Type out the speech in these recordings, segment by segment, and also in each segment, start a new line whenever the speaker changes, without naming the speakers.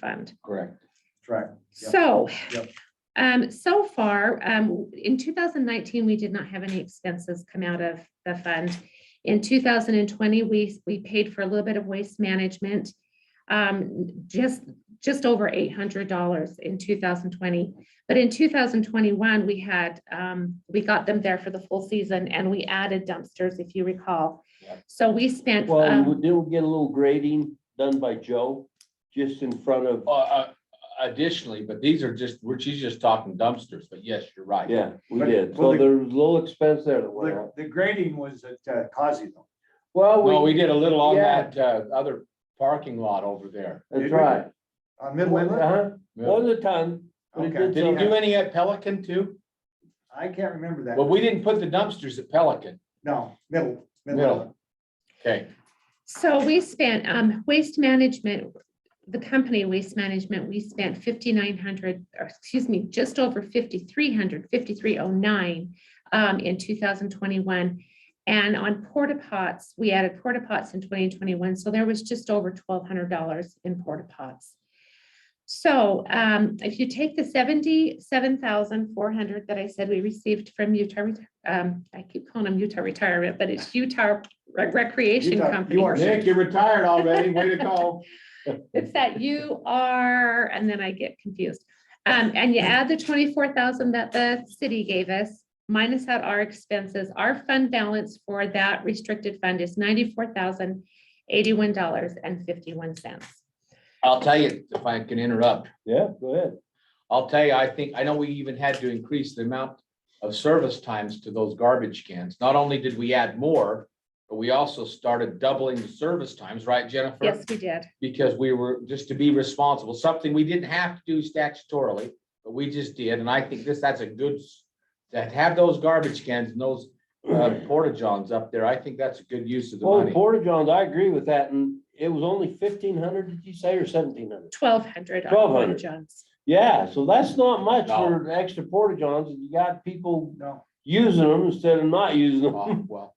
fund.
Correct.
Correct. Yep.
So,
Yep.
um, so far, um, in two thousand nineteen, we did not have any expenses come out of the fund. In two thousand and twenty, we, we paid for a little bit of waste management. Um, just, just over eight hundred dollars in two thousand twenty. But in two thousand twenty-one, we had, um, we got them there for the full season and we added dumpsters, if you recall.
Yep.
So we spent,
Well, we
um,
did get a little grading done by Joe, just in front of,
Uh, uh, additionally, but these are just, we're, she's just talking dumpsters, but yes, you're right.
yeah, we
But-
did.
well,
So
the-
there was a little expense there that went
The,
up.
the grading was at uh, Causey though.
Well, we did a little on
Oh, yeah.
that, uh, other parking lot over there.
That's
Did we?
right.
On Uh, Middle Inlet?
Uh-huh. Wasn't a ton. but it
Okay.
did
Did he do
some.
any at Pelican too?
I can't remember that.
Well, we didn't put the dumpsters at Pelican.
No, middle,
Middle.
middle.
Okay,
so we spent, um, waste management, the company Waste Management, we spent fifty-nine hundred, or excuse me, just over fifty-three hundred, fifty-three oh nine um, in two thousand twenty-one. And on porta pots, we added porta pots in twenty twenty-one, so there was just over twelve hundred dollars in porta pots. So um, if you take the seventy-seven thousand four hundred that I said we received from Utah, Ret- um, I keep calling them Utah Retirement, but it's Utah Re- Recreation
Utah- you
Company.
are
Nick, you're retired already. Way to go.
It's that you are, and then I get confused. Um, and you add the twenty-four thousand that the city gave us, minus out our expenses, our fund balance for that restricted fund is ninety-four thousand eighty-one dollars and fifty-one cents.
I'll tell you, if I can interrupt,
Yeah, go ahead.
I'll tell you, I think, I know we even had to increase the amount of service times to those garbage cans. Not only did we add more, but we also started doubling the service times, right, Jennifer?
Yes, we did.
because we were just to be responsible, something we didn't have to do statutorily, but we just did, and I think this, that's a good. s- To have those garbage cans and those uh, porta johns up there, I think that's a good use of the
Well, the
money.
Porta Johns, I agree with that. And it was only fifteen hundred, did you say, or seventeen hundred?
Twelve hundred.
$1,200.
Johns.
Yeah, so that's not much
No.
for extra Porta Johns. and You got people
No,
using them instead of not using them.
Oh, Well,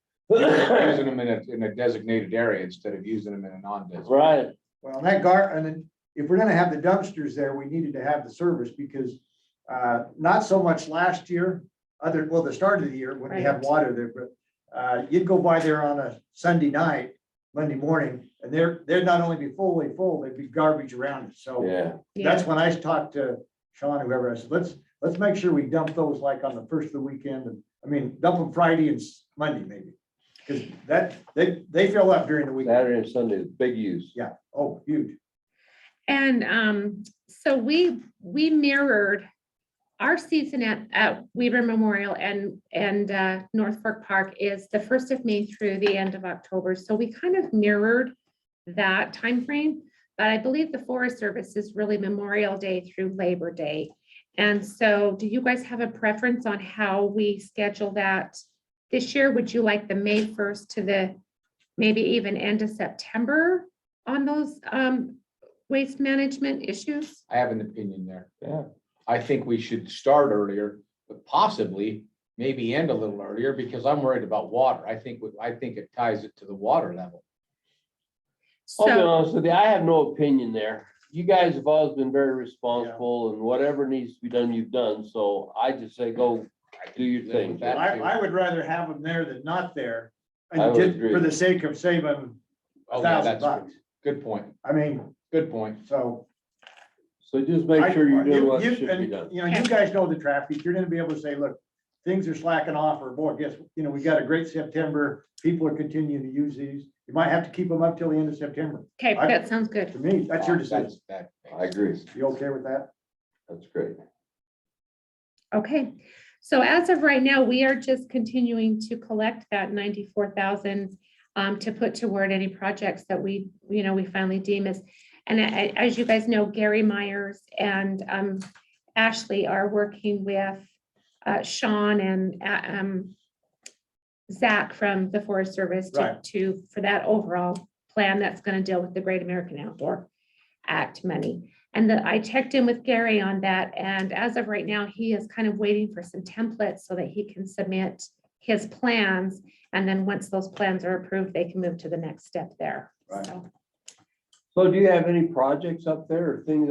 using them in a, in a designated area instead of using them in a non-designated.
Right.
well, and that gar, and then if we're gonna have the dumpsters there, we needed to have the service because uh, not so much last year, other, well, the start of the year when we had
Right.
water there, but uh, you'd go by there on a Sunday night, Monday morning, and they're, they'd not only be fully full, they'd be garbage around it. So
Yeah.
That's when I talked to Sean, whoever, I said, let's, let's make sure we dump those like on the first of the weekend, and, I mean, dump them Friday and s- Monday maybe. Cause that, they, they fill up during the week.
Saturday and Sunday is big use.
Oh, huge.
And um, so we, we mirrored our season at, at Weaver Memorial and, and uh, North Fork Park is the first of May through the end of October. So we kind of mirrored that time frame. But I believe the Forest Service is really Memorial Day through Labor Day. And so do you guys have a preference on how we schedule that? This year, would you like the May first to the, maybe even end of September on those um, waste management issues?
I have an opinion there.
Yeah.
I think we should start earlier, but possibly maybe end a little earlier because I'm worried about water. I think, I think it ties it to the water level.
I'll be
So,
honest with you, I have no opinion there. You guys have always been very responsible and whatever needs to be done, you've done. So I just say go do your
live
thing.
with that.
I, I would rather have them there than not there.
I
And
would
just
agree.
for the sake of saving
Oh, yeah,
a thousand
that's-
bucks.
Good point,
I mean,
good point.
so.
So just make
I-
sure you're doing
you-
what
you-
should
and,
be done.
You know, you guys know the traffic. You're gonna be able to say, look, things are slacking off or boy, guess, you know, we got a great September. People are continuing to use these. You might have to keep them up till the end of September.
okay,
I-
that sounds
To
good.
me, that's your
Uh,
decision.
that- that-
I agree.
You okay with that?
That's great.
Okay. So as of right now, we are just continuing to collect that ninety-four thousand um, to put toward any projects that we, you know, we finally deem as. And a- a- as you guys know, Gary Myers and um, Ashley are working with uh, Sean and uh, um, Zach from the Forest Service to,
Right.
to, for that overall plan that's going to deal with the Great American Outdoor Act money. And that I checked in with Gary on that, and as of right now, he is kind of waiting for some templates so that he can submit his plans. And then once those plans are approved, they can move to the next step there.
Right.
So.
So do you have any projects up there or things